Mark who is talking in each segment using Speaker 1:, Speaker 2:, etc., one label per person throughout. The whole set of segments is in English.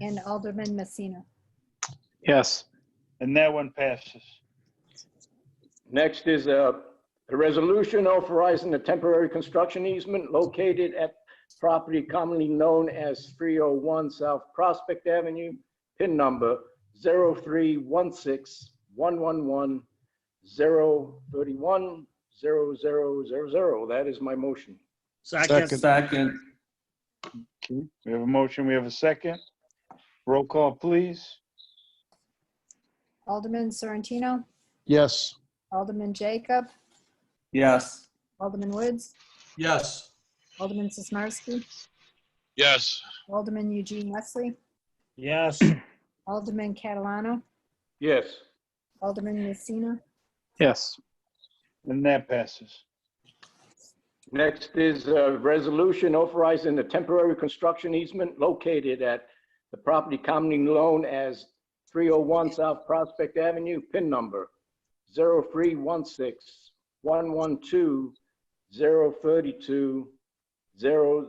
Speaker 1: and Alderman Messina.
Speaker 2: Yes.
Speaker 3: And that one passes.
Speaker 4: Next is a, a resolution authorizing the temporary construction easement located at property commonly known as 301 South Prospect Avenue, pin number 0316111 31 That is my motion.
Speaker 5: Second.
Speaker 6: Second.
Speaker 3: We have a motion, we have a second. Roll call, please.
Speaker 1: Alderman Sorrentino,
Speaker 5: Yes.
Speaker 1: Alderman Jacob,
Speaker 6: Yes.
Speaker 1: Alderman Woods,
Speaker 5: Yes.
Speaker 1: Alderman Sismarski,
Speaker 7: yes,
Speaker 1: Alderman Eugene Wesley,
Speaker 8: yes,
Speaker 1: Alderman Catalano,
Speaker 4: Yes.
Speaker 1: Alderman Messina,
Speaker 2: Yes.
Speaker 3: And that passes.
Speaker 4: Next is a resolution authorizing the temporary construction easement located at the property commonly known as 301 South Prospect Avenue, PIN number 03161120320000.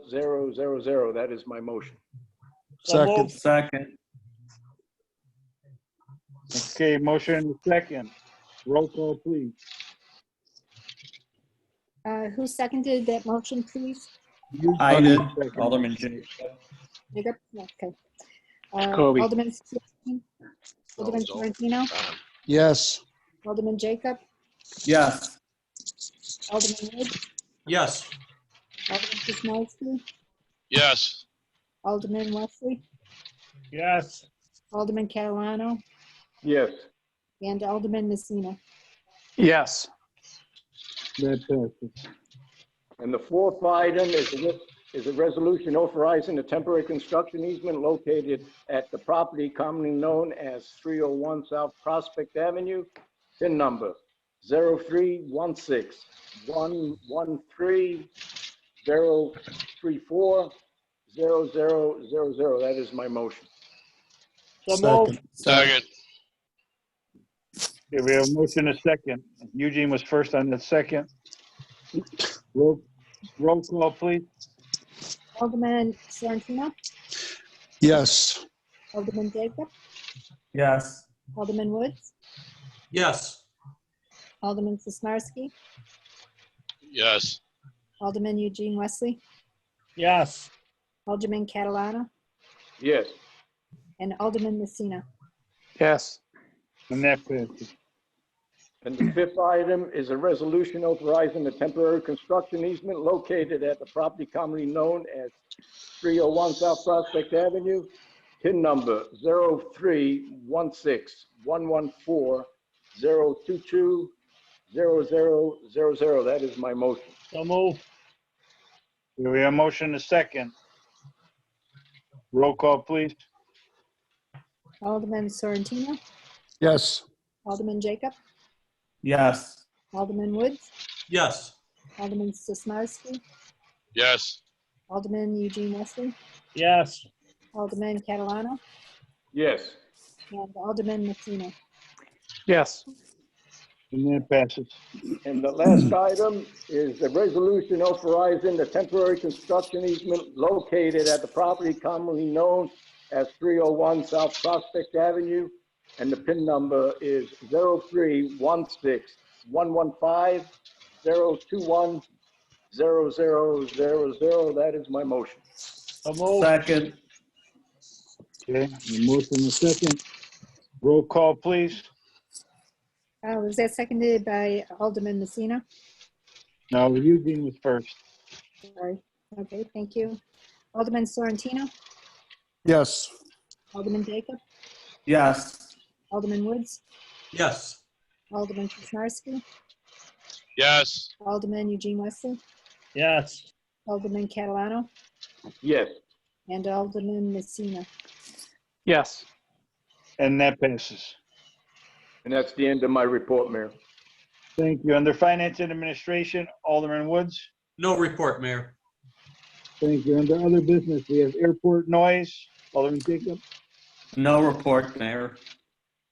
Speaker 4: That is my motion.
Speaker 8: So
Speaker 5: Second.
Speaker 8: moved.
Speaker 6: Second.
Speaker 3: Okay, motion and a second. Roll call, please.
Speaker 1: Uh, Who seconded that motion, please?
Speaker 6: I did. Alderman J.
Speaker 1: Jacob? Okay. Uh,
Speaker 2: Kobe.
Speaker 1: Alderman Sismarski, Alderman Sorrentino,
Speaker 5: Yes.
Speaker 1: Alderman Jacob,
Speaker 6: Yes.
Speaker 1: Alderman Woods,
Speaker 5: Yes.
Speaker 1: Alderman Sismarski,
Speaker 7: yes,
Speaker 1: Alderman Wesley,
Speaker 8: yes,
Speaker 1: Alderman Catalano,
Speaker 4: Yes.
Speaker 1: and Alderman Messina.
Speaker 2: Yes.
Speaker 3: That passes.
Speaker 4: And the fourth item is a, re- is a resolution authorizing the temporary construction easement located at the property commonly known as 301 South Prospect Avenue, PIN number 0316113034000. That is my motion.
Speaker 8: so moved.
Speaker 5: Second.
Speaker 7: second,
Speaker 3: Okay, we have a motion and a second. Eugene was first on the second. Roll roll call, please.
Speaker 1: Alderman Sorrentino,
Speaker 5: Yes.
Speaker 1: Alderman Jacob,
Speaker 6: Yes.
Speaker 1: Alderman Woods,
Speaker 5: Yes.
Speaker 1: Alderman Sismarski,
Speaker 7: yes,
Speaker 1: Alderman Eugene Wesley,
Speaker 8: yes,
Speaker 1: Alderman Catalano,
Speaker 4: Yes.
Speaker 1: and Alderman Messina.
Speaker 2: Yes.
Speaker 3: And that passes.
Speaker 4: And the fifth item is a resolution authorizing the temporary construction easement located at the property commonly known as 301 South Prospect Avenue, PIN number 0316114022000. That is my motion.
Speaker 8: so moved.
Speaker 3: Okay, We have a motion and a second. Roll call, please.
Speaker 1: Alderman Sorrentino,
Speaker 5: Yes.
Speaker 1: Alderman Jacob,
Speaker 6: Yes.
Speaker 1: Alderman Woods,
Speaker 5: Yes.
Speaker 1: Alderman Sismarski,
Speaker 7: yes,
Speaker 1: Alderman Eugene Wesley,
Speaker 8: yes,
Speaker 1: Alderman Catalano,
Speaker 4: Yes.
Speaker 1: and Alderman Messina.
Speaker 2: Yes.
Speaker 3: And that passes.
Speaker 4: And the last item is the resolution authorizing the temporary construction easement located at the property commonly known as 301 South Prospect Avenue, and the PIN number is 0316115021000. That is my motion.
Speaker 8: so moved.
Speaker 6: Second.
Speaker 3: Okay, a motion and a second. Roll call, please.
Speaker 1: Uh, Was that seconded by Alderman Messina?
Speaker 3: No, Eugene was first.
Speaker 1: Sorry. Okay, thank you. Alderman Sorrentino,
Speaker 5: Yes.
Speaker 1: Alderman Jacob,
Speaker 6: Yes.
Speaker 1: Alderman Woods,
Speaker 5: Yes.
Speaker 1: Alderman Krasnarsky,
Speaker 7: yes,
Speaker 1: Alderman Eugene Wesley,
Speaker 8: Yes,
Speaker 1: Alderman Catalano,
Speaker 4: Yes.
Speaker 1: and Alderman Messina.
Speaker 2: Yes.
Speaker 3: And that passes.
Speaker 4: And that's the end of my report, Mayor.
Speaker 3: Thank you. Under Finance and Administration, Alderman Woods.
Speaker 9: No report, Mayor.
Speaker 3: Thank you. Under Other Business, we have Airport Noise, Alderman Jacob.
Speaker 6: No report, Mayor.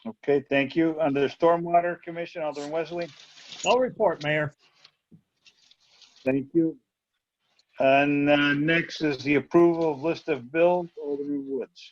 Speaker 3: Okay, thank you. Under Stormwater Commission, Alderman Wesley.
Speaker 8: no report, Mayor.
Speaker 3: Thank you. And uh, next is the approval of list of bills, Alderman Woods.